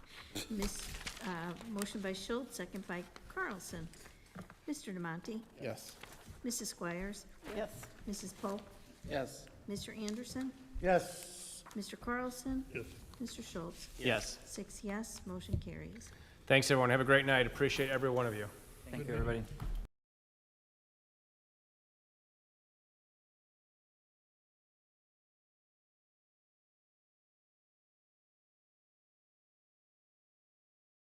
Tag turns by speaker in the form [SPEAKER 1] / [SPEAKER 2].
[SPEAKER 1] Miss, uh, motion by Schultz, second by Carlson. Mr. Demonte,
[SPEAKER 2] Yes.
[SPEAKER 1] Mrs. Squires,
[SPEAKER 3] Yes.
[SPEAKER 1] Mrs. Pope,
[SPEAKER 2] Yes.
[SPEAKER 1] Mr. Anderson,
[SPEAKER 2] Yes.
[SPEAKER 1] Mr. Carlson,
[SPEAKER 2] Yes.
[SPEAKER 1] Mr. Schultz.
[SPEAKER 4] Yes.
[SPEAKER 1] Six yes, motion carries.
[SPEAKER 4] Thanks, everyone. Have a great night. Appreciate every one of you.
[SPEAKER 5] Thank you, everybody.